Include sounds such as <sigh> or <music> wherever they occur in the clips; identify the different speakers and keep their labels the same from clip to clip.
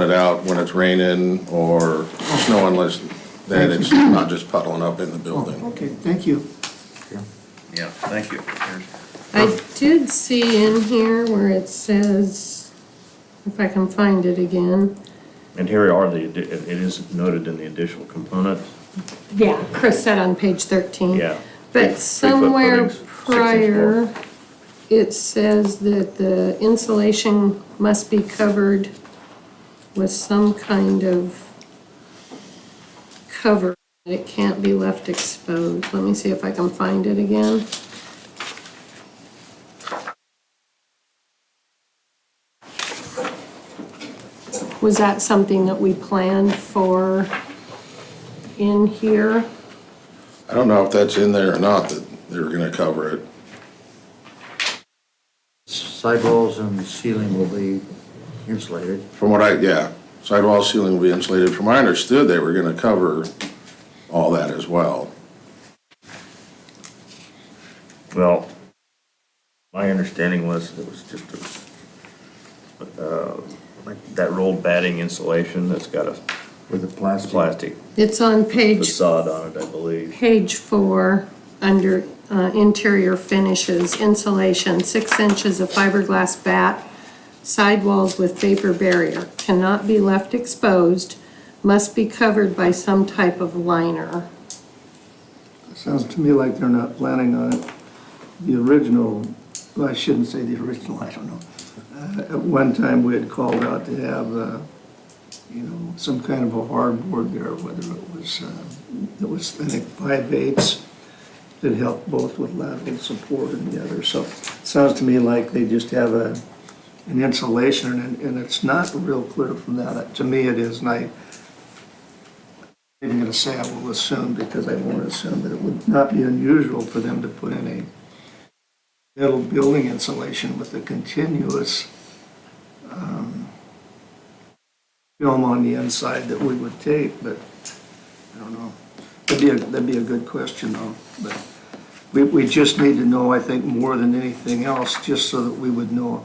Speaker 1: it out when it's raining or snowing, less that it's not just puddling up in the
Speaker 2: Oh,
Speaker 1: building.
Speaker 2: okay, thank you.
Speaker 3: Yeah, thank you. Here's-
Speaker 4: I did see in here where it says, if I can find it again.
Speaker 5: And here are the, addi- it it is noted in the additional component,
Speaker 4: Yeah. Chris said on page thirteen.
Speaker 5: Yeah. Three-
Speaker 4: But
Speaker 5: three-foot
Speaker 4: somewhere
Speaker 5: footings, six inch
Speaker 4: prior, it says that the insulation must be covered with some kind of cover. It can't be left exposed. Let me see if I can find it again. Was that something that we planned for in here?
Speaker 1: I don't know if that's in there or not, that they were gonna cover it.
Speaker 3: Sidewalls and ceiling will be insulated.
Speaker 1: From what I, yeah, sidewall ceiling will be insulated. From what I understood, they were gonna cover all that as well.
Speaker 5: Well, my understanding was it was just a, uh, like that rolled batting insulation that's got a
Speaker 3: With the plastic.
Speaker 5: plastic
Speaker 4: It's on page,
Speaker 5: facade on it, I believe.
Speaker 4: page four, under uh, interior finishes, insulation, six inches of fiberglass bat, sidewalls with vapor barrier, cannot be left exposed, must be covered by some type of liner.
Speaker 2: Sounds to me like they're not planning on it. The original, well, I shouldn't say the original, I don't know. Uh, At one time, we had called out to have, uh, you know, some kind of a hardboard there, whether it was, uh, it was, I think, five eighths that helped both with lateral support and the other. So sounds to me like they just have a, an insulation and, and it's not real clear from that. To me, it is, and I, I'm even gonna say I will assume, because I won't assume, but it would not be unusual for them to put in a metal building insulation with a continuous um, film on the inside that we would tape, but I don't know. That'd be, a that'd be a good question, though, but we, we just need to know, I think, more than anything else, just so that we would know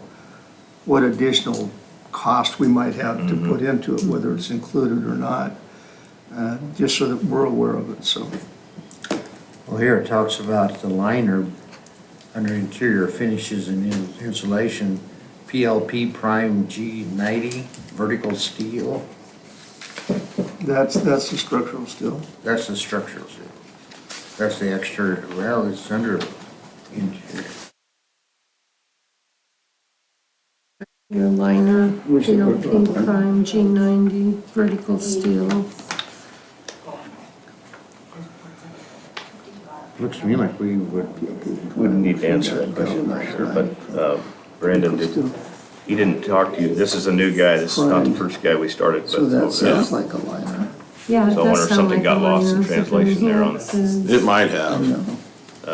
Speaker 2: what additional cost we might have to put into it, whether it's included or not uh, just so that we're aware of it, so.
Speaker 3: Well, here it talks about the liner under interior finishes and in- insulation, PLP Prime G90 vertical steel.
Speaker 2: That's, that's the structural steel.
Speaker 3: That's the structural steel. That's the exterior. Well, it's under interior.
Speaker 4: Your liner,
Speaker 2: We should put
Speaker 4: PLP
Speaker 2: that.
Speaker 4: prime, G90, vertical steel.
Speaker 3: Looks to me like we would
Speaker 5: Wouldn't need to answer that question, for sure, but uh, Brandon, did- he didn't talk to you. This is a new guy. This is not the first guy we started with.
Speaker 2: So that
Speaker 5: Yeah.
Speaker 2: sounds like a liner.
Speaker 4: Yeah, it
Speaker 5: So I wonder
Speaker 4: does sound
Speaker 5: if something
Speaker 4: like a
Speaker 5: got lost in
Speaker 4: liner.
Speaker 5: translation there on-
Speaker 4: Enhances-
Speaker 1: It might have.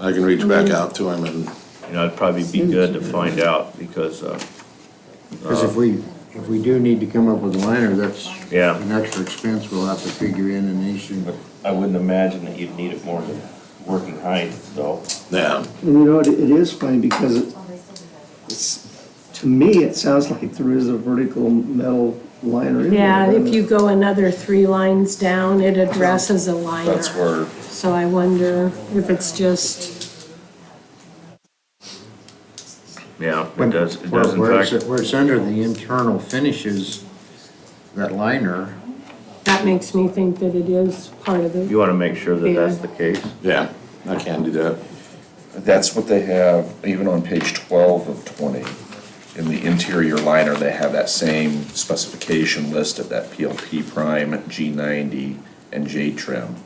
Speaker 1: I can reach back out to him and,
Speaker 5: You know, it'd probably be good to find out because, uh,
Speaker 3: Because if we, if we do need to come up with a liner, that's
Speaker 5: Yeah.
Speaker 3: an extra expense we'll have to figure in and issue.
Speaker 5: but I wouldn't imagine that you'd need it more than working height, so.
Speaker 1: yeah,
Speaker 2: And you know, it it is funny because it- it's, to me, it sounds like there is a vertical metal liner in there.
Speaker 4: Yeah,
Speaker 2: doesn't
Speaker 4: if you
Speaker 2: it?
Speaker 4: go another three lines down, it addresses a liner.
Speaker 1: that's where,
Speaker 4: So I wonder if it's just,
Speaker 5: Yeah, it does, it
Speaker 3: Where-
Speaker 5: does in
Speaker 3: where it's-
Speaker 5: fact.
Speaker 3: Where it's under the internal finishes, that liner,
Speaker 4: that makes me think that it is part of
Speaker 5: You
Speaker 4: the,
Speaker 5: want to make sure that that's the case.
Speaker 1: yeah, I can do that.
Speaker 6: That's what they have, even on page twelve of twenty, in the interior liner, they have that same specification list of that PLP prime, G ninety, and J trim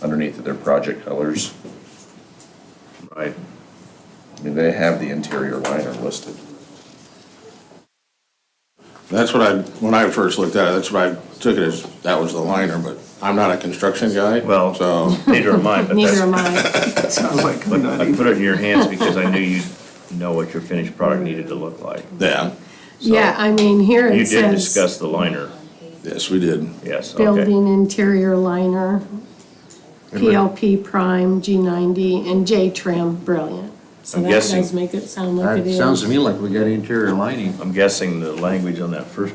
Speaker 6: underneath of their project colors.
Speaker 5: Right.
Speaker 6: I mean, they have the interior liner listed.
Speaker 1: That's what I, when I first looked at it, that's what I took it as, that was the liner, but I'm not a construction guy,
Speaker 5: Well-
Speaker 1: so.
Speaker 5: Neither am I,
Speaker 4: <laughs>
Speaker 5: but
Speaker 4: neither
Speaker 5: that's,
Speaker 4: am
Speaker 5: <laughs>
Speaker 4: I.
Speaker 2: It sounds like a
Speaker 5: but I
Speaker 2: nutty.
Speaker 5: put it in your
Speaker 3: <laughs>
Speaker 5: hands because I knew you'd know what your finished product needed to look like.
Speaker 1: Yeah,
Speaker 4: Yeah, I mean, here
Speaker 5: You
Speaker 4: it
Speaker 5: did
Speaker 4: says,
Speaker 5: discuss the liner,
Speaker 1: yes, we did.
Speaker 5: yes, okay.
Speaker 4: building interior liner, PLP prime, G90, and J trim, brilliant. So
Speaker 5: I'm
Speaker 4: that
Speaker 5: guessing-
Speaker 4: does make it sound like it
Speaker 3: That
Speaker 4: is.
Speaker 3: sounds to me like we got interior lining.
Speaker 5: I'm guessing the language on that first